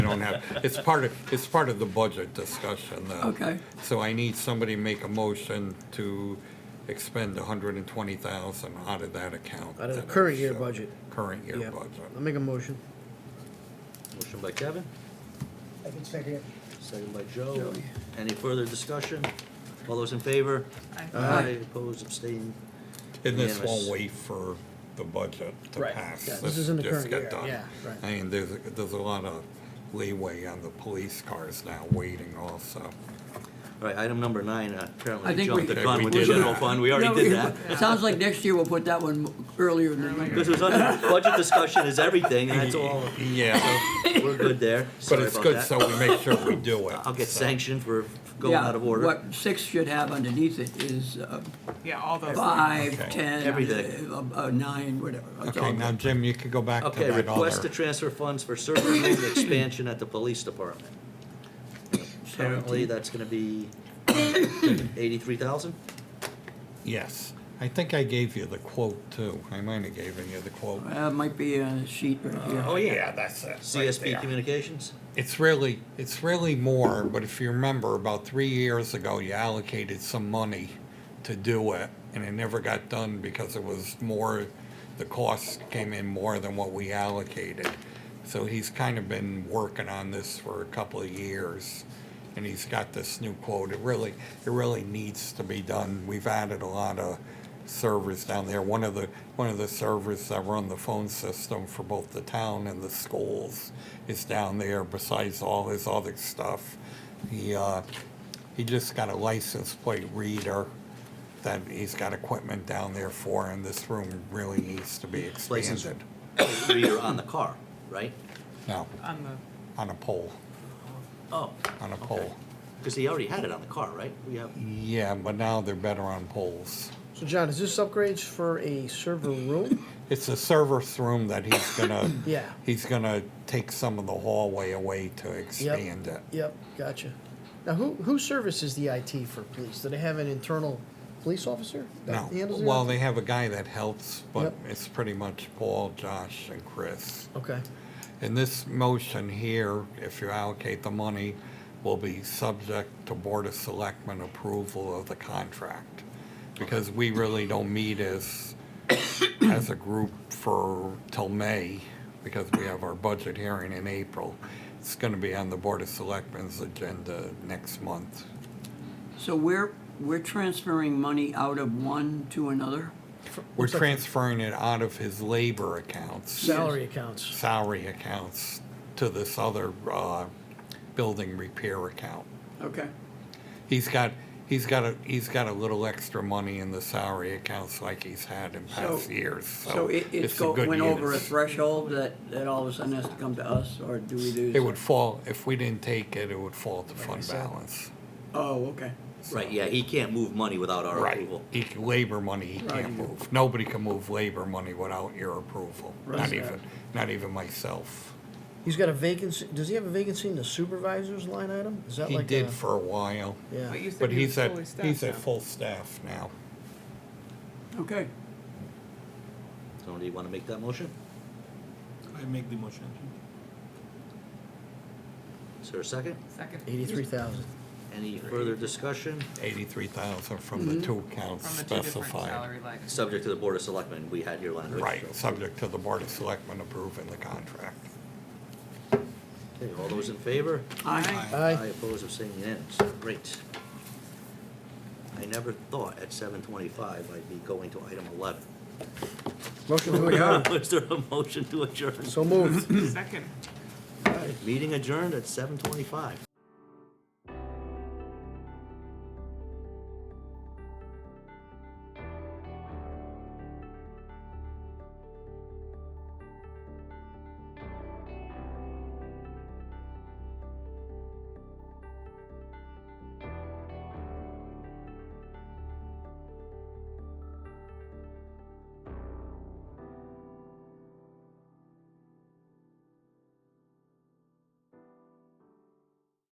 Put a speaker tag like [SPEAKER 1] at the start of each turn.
[SPEAKER 1] don't have, it's part of, it's part of the budget discussion. uh,
[SPEAKER 2] Okay.
[SPEAKER 1] So I need somebody to make a motion to expend hundred and twenty thousand out of that account.
[SPEAKER 3] Out of the
[SPEAKER 1] that
[SPEAKER 3] current
[SPEAKER 1] is,
[SPEAKER 3] year
[SPEAKER 1] uh,
[SPEAKER 3] budget.
[SPEAKER 1] Current
[SPEAKER 3] Yeah.
[SPEAKER 1] year budget.
[SPEAKER 3] I'll make a motion.
[SPEAKER 4] Motion by Kevin,
[SPEAKER 5] I can second it.
[SPEAKER 4] second by Joe. Any further discussion? All those in favor?
[SPEAKER 2] Uh,
[SPEAKER 4] Aye. Opposed, abstained?
[SPEAKER 1] And this
[SPEAKER 4] Unanimous.
[SPEAKER 1] won't wait for the budget to
[SPEAKER 3] Right.
[SPEAKER 1] pass.
[SPEAKER 3] Yeah, this is in the
[SPEAKER 1] just
[SPEAKER 3] current
[SPEAKER 1] get
[SPEAKER 3] year,
[SPEAKER 1] done.
[SPEAKER 3] yeah, right.
[SPEAKER 1] I mean, there's, there's a lot of leeway on the police cars now waiting also.
[SPEAKER 4] All right, item number nine, uh,
[SPEAKER 2] I
[SPEAKER 4] apparently we
[SPEAKER 2] think
[SPEAKER 4] jumped
[SPEAKER 2] we-
[SPEAKER 4] the gun
[SPEAKER 1] We
[SPEAKER 4] with the
[SPEAKER 1] did
[SPEAKER 4] general
[SPEAKER 1] that.
[SPEAKER 4] fund, we already
[SPEAKER 2] No,
[SPEAKER 4] did
[SPEAKER 2] we-
[SPEAKER 4] that.
[SPEAKER 2] Sounds like next year we'll put that one earlier than.
[SPEAKER 4] Because it was under, budget discussion is everything, and that's all,
[SPEAKER 1] Yeah,
[SPEAKER 4] we're good there.
[SPEAKER 1] but
[SPEAKER 4] Sorry
[SPEAKER 1] it's
[SPEAKER 4] about
[SPEAKER 1] good,
[SPEAKER 4] that.
[SPEAKER 1] so we make sure we do it.
[SPEAKER 4] I'll get
[SPEAKER 1] so.
[SPEAKER 4] sanctioned for going
[SPEAKER 2] Yeah,
[SPEAKER 4] out of order.
[SPEAKER 2] What six should have underneath it is uh,
[SPEAKER 6] Yeah, all those.
[SPEAKER 2] five,
[SPEAKER 1] Okay.
[SPEAKER 2] ten,
[SPEAKER 4] Everything.
[SPEAKER 2] uh, uh, nine, whatever. It's all
[SPEAKER 1] Okay, now
[SPEAKER 2] good.
[SPEAKER 1] Jim, you could go back to
[SPEAKER 4] Okay,
[SPEAKER 1] that
[SPEAKER 4] request to
[SPEAKER 1] other.
[SPEAKER 4] transfer funds for server room expansion at the police department. Apparently, that's gonna be eighty-three thousand?
[SPEAKER 1] Yes, I think I gave you the quote too. I might have given you the quote.
[SPEAKER 2] Uh, might be a sheet right here.
[SPEAKER 4] Oh,
[SPEAKER 1] yeah, that's it.
[SPEAKER 4] CSB Communications?
[SPEAKER 1] It's really, it's really more, but if you remember, about three years ago, you allocated some money to do it, and it never got done because it was more, the cost came in more than what we allocated. So he's kind of been working on this for a couple of years, and he's got this new quote. It really, it really needs to be done. We've added a lot of servers down there. One of the, one of the servers that run the phone system for both the town and the schools is down there besides all his other stuff. He, uh, he just got a license plate reader that he's got equipment down there for and this room really needs to be
[SPEAKER 4] License
[SPEAKER 1] expanded.
[SPEAKER 4] Reader on the car, right?
[SPEAKER 1] No,
[SPEAKER 6] On the,
[SPEAKER 1] on a pole,
[SPEAKER 4] Oh,
[SPEAKER 1] on a pole.
[SPEAKER 4] because he already had it on the car, right? We have,
[SPEAKER 1] Yeah, but now they're better on poles.
[SPEAKER 3] So John, is this upgrades for a server room?
[SPEAKER 1] It's a service room that he's gonna,
[SPEAKER 3] Yeah.
[SPEAKER 1] he's gonna take some of the hallway away to expand it.
[SPEAKER 3] Yep, gotcha. Now, who, who services the IT for police? Do they have an internal police officer?
[SPEAKER 1] No,
[SPEAKER 3] that handles the
[SPEAKER 1] well,
[SPEAKER 3] IT?
[SPEAKER 1] they have a guy that helps, but
[SPEAKER 3] Yep.
[SPEAKER 1] it's pretty much Paul, Josh, and Chris.
[SPEAKER 3] Okay,
[SPEAKER 1] And this motion here, if you allocate the money, will be subject to Board of Selectmen approval of the contract. Because we really don't meet as, as a group for, till May, because we have our budget hearing in April. It's gonna be on the Board of Selectmen's agenda next month.
[SPEAKER 2] So we're, we're transferring money out of one to another?
[SPEAKER 1] We're
[SPEAKER 3] Looks like-
[SPEAKER 1] transferring it out of his labor accounts.
[SPEAKER 3] salary accounts.
[SPEAKER 1] salary accounts to this other uh, building repair account.
[SPEAKER 2] Okay.
[SPEAKER 1] He's got, he's got, a he's got a little extra money in the salary accounts like he's had in
[SPEAKER 2] So-
[SPEAKER 1] past years, so.
[SPEAKER 2] So it, it's
[SPEAKER 1] a
[SPEAKER 2] go,
[SPEAKER 1] good
[SPEAKER 2] went over a
[SPEAKER 1] use.
[SPEAKER 2] threshold that, that all of a sudden has to come to us, or do we do?
[SPEAKER 1] It would fall, if we didn't take it, it would fall to fund balance.
[SPEAKER 2] Oh, okay.
[SPEAKER 4] right, yeah, he can't move money without our
[SPEAKER 1] Right,
[SPEAKER 4] approval.
[SPEAKER 1] he, can- labor money he can't move. Nobody can move labor money without your approval, not
[SPEAKER 2] Right.
[SPEAKER 1] even, not even myself.
[SPEAKER 3] He's got a vacancy, does he have a vacancy in the supervisor's line item? Is that
[SPEAKER 1] He
[SPEAKER 3] like
[SPEAKER 1] did
[SPEAKER 3] a-
[SPEAKER 1] for a while,
[SPEAKER 3] Yeah,
[SPEAKER 6] but you said
[SPEAKER 1] but
[SPEAKER 6] he
[SPEAKER 1] he's
[SPEAKER 6] was
[SPEAKER 1] at,
[SPEAKER 6] fully staffed
[SPEAKER 1] he's at
[SPEAKER 6] now.
[SPEAKER 1] full staff now.
[SPEAKER 2] Okay.
[SPEAKER 4] So do you want to make that motion?
[SPEAKER 7] I make the motion.
[SPEAKER 4] Is there a second?
[SPEAKER 6] Second.
[SPEAKER 3] eighty-three thousand.
[SPEAKER 4] Any further discussion?
[SPEAKER 1] eighty-three thousand from
[SPEAKER 2] Mm-hmm.
[SPEAKER 1] the two accounts
[SPEAKER 6] From the two different salary
[SPEAKER 1] specified.
[SPEAKER 6] lines.
[SPEAKER 4] Subject to the Board of Selectmen, we had your language.
[SPEAKER 1] Right,
[SPEAKER 4] so-
[SPEAKER 1] subject to the Board of Selectmen approving the contract.
[SPEAKER 4] Okay, all those in favor?
[SPEAKER 2] Aye.
[SPEAKER 4] I
[SPEAKER 3] Aye,
[SPEAKER 4] oppose abstaining unanimous. Great. I never thought at seven twenty-five I'd be going to item eleven.
[SPEAKER 3] motion to adjourn.
[SPEAKER 4] Is there a motion to adjourn?
[SPEAKER 3] So moved.
[SPEAKER 6] Second.
[SPEAKER 4] All right, Meeting adjourned at seven twenty-five.